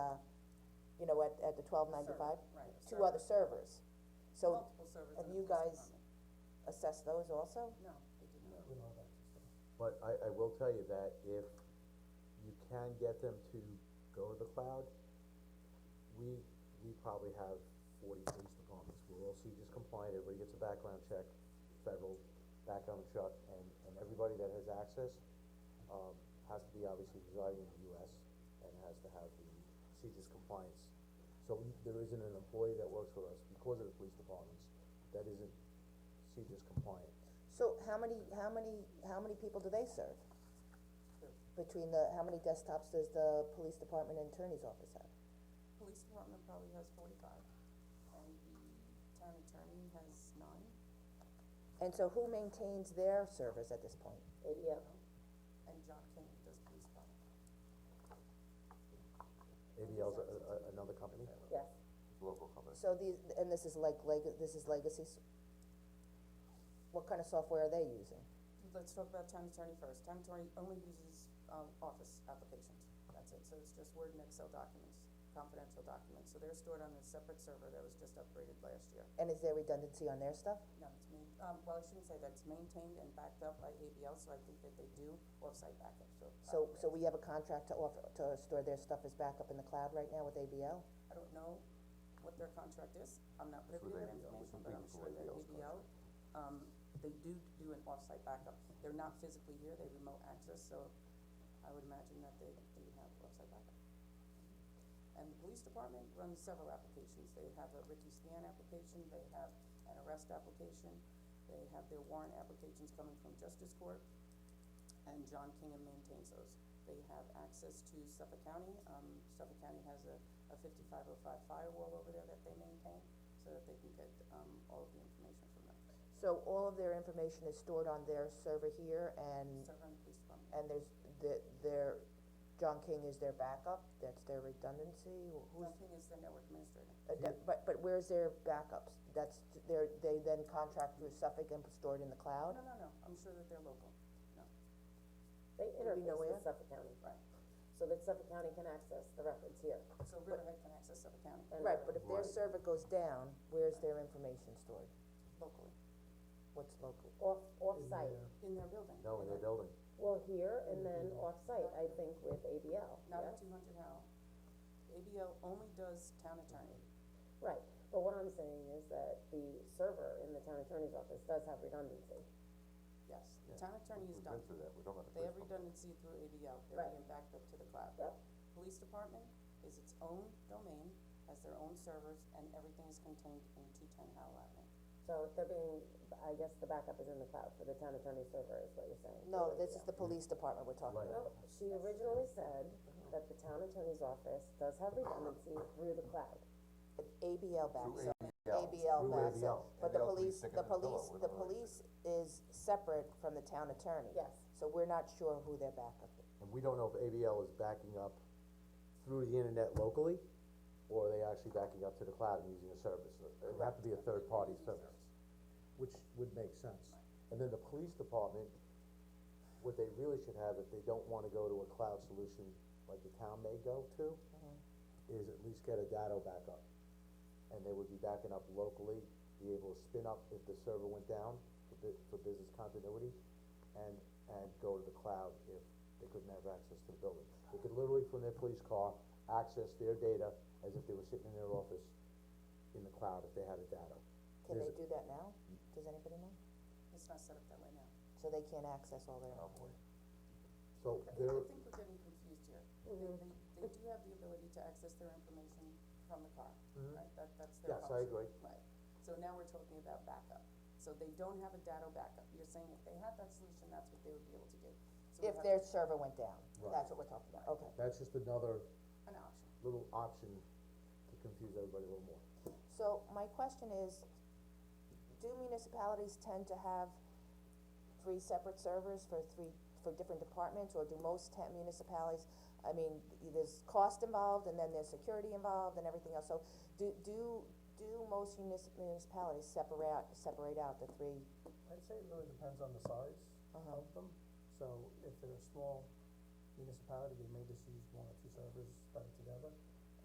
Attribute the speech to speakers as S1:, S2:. S1: you know, at, at the twelve ninety-five?
S2: Server, right,
S1: Two
S2: server.
S1: other servers, so
S2: Multiple servers
S1: have
S2: in a
S1: you
S2: police
S1: guys- assess those also?
S2: department. No, they did not.
S3: But I, I will tell you that if you can get them to go to the cloud, we, we probably have forty police departments, we're all CJIS compliant, everybody gets a background check, federal background check, and, and everybody that has access, um, has to be obviously residing in the US and has to have the CJIS compliance. So we- there isn't an employee that works for us because of the police departments that isn't CJIS compliant.
S1: So how many, how many, how many people do they serve? Between the, how many desktops does the police department and attorney's office have?
S2: Police department probably has forty-five, and the town attorney has nine,
S1: And so who maintains their servers at this point?
S2: Uh,
S4: ADF,
S2: and John King does police department.
S3: ABL's a, a, another company?
S4: yes,
S5: local company.
S1: So these, and this is like leg, this is legacy, s- what kind of software are they using?
S2: Let's talk about town attorney first. Town attorney only uses, um, office applications. That's it. So it's just Word and Excel documents, confidential documents. So they're stored on a separate server that was just upgraded last year.
S1: And is there redundancy on their stuff?
S2: No, it's main, um, well, I shouldn't say that. It's maintained and backed up by ABL, so I think that they do offsite backup, so.
S1: So, so we have a contract to offer, to store their stuff as backup in the cloud right now with ABL?
S2: I don't know what their contract is, I'm not privy to
S5: with
S2: that
S5: ABL. We
S2: information,
S5: can
S2: but
S5: think
S2: I'm
S5: it's
S2: sure
S5: with
S2: that
S5: ABL's
S2: ABL, um, they do do an offsite backup. They're not physically here, they remote access, so I would imagine that they, they would have offsite backup. And the police department runs several applications, they have a Ricky Scan application, they have an arrest application, they have their warrant applications coming from justice court, and John Kingham maintains those. They have access to Suffolk County, um, Suffolk County has a, a fifty-five oh five firewall over there that they maintain, so that they can get, um, all of the information from them.
S1: So all of their information is stored on their server here and,
S2: Server and police department,
S1: and there's, the, their, John King is their backup, that's their redundancy, who's,
S2: John King is the network administrator,
S1: uh, that- but, but where's their backups? That's, their, they then contract through Suffolk and store it in the
S2: no,
S1: cloud?
S2: no, no, I'm sure that they're local, no,
S4: they
S1: we know
S4: interface with
S1: where?
S4: Suffolk County,
S2: right,
S4: so that Suffolk County can access the records here.
S2: so Riverhead can access Suffolk County
S4: and
S1: Right, but if their
S3: Right.
S1: server goes down, where's their information stored?
S2: locally,
S1: What's local?
S4: Off, off-site,
S2: in their building.
S3: No, in their building.
S4: well, here and then off-site, I think with ABL,
S2: Not
S4: yeah,
S2: at two hundred Howell, ABL only does town attorney,
S4: right, but what I'm saying is that the server in the town attorney's office does have redundancy.
S2: yes, the town attorney is
S5: We've
S2: done.
S5: been through that, we don't have the
S2: They have
S5: police company.
S2: redundancy through ABL, they're
S4: Right.
S2: being backed up to the cloud.
S4: Yep.
S2: Police department is its own domain, has their own servers, and everything is contained in two ten Howell Avenue.
S4: So if they're being, I guess the backup is in the cloud for the town attorney server is what you're saying.
S1: No, this is the police department we're talking
S3: Right.
S1: about.
S4: Well, she originally said
S1: Uh-huh.
S4: that the town attorney's office does have redundancy through the cloud.
S1: ABL backs up.
S5: ABL.
S1: ABL
S3: Through
S1: backs
S3: ABL.
S1: up, but the
S5: ABL 's pretty
S1: police,
S5: thick
S1: the
S5: as a pillow.
S1: police,
S5: We
S1: the
S5: don't really-
S1: police is separate from the town attorney.
S4: Yes.
S1: So we're not sure who their backup is.
S3: And we don't know if ABL is backing up through the internet locally, or are they actually backing up to the cloud and using a service, it would have to be a third-party service, which would make sense. And then the police department, what they really should have, if they don't wanna go to a cloud solution like the town may go to,
S1: Mm-hmm.
S3: is at least get a data backup. And they would be backing up locally, be able to spin up if the server went down for bu- for business continuity, and, and go to the cloud if they couldn't have access to the building. They could literally from their police car, access their data as if they were sitting in their office in the cloud if they had a data.
S1: Can
S3: There's
S1: they
S3: a-
S1: do that now? Does anybody know?
S2: It's not set up that way now.
S1: So they can't access all
S3: Oh,
S1: their,
S3: So
S2: I
S3: there,
S2: I think we're getting confused here. They, they, they do have the ability to access their information from the car, right? That, that's their
S3: Mm-hmm. Yes,
S2: option.
S3: I agree.
S2: Right. So now we're talking about backup. So they don't have a data backup. You're saying if they had that solution, that's what they would be able to do. So we
S1: if
S2: have
S1: their server went down,
S3: Right.
S1: that's what we're talking about, okay.
S3: that's just another
S2: An option.
S3: little option to confuse everybody a little more.
S1: So my question is, do municipalities tend to have three separate servers for three, for different departments, or do most ta- municipalities, I mean, there's cost involved, and then there's security involved and everything else, so do, do, do most munis- municipalities separate out, separate out the three?
S6: I'd say it really depends on the size of them, so if they're a small municipality, they may just use one or two servers tied together.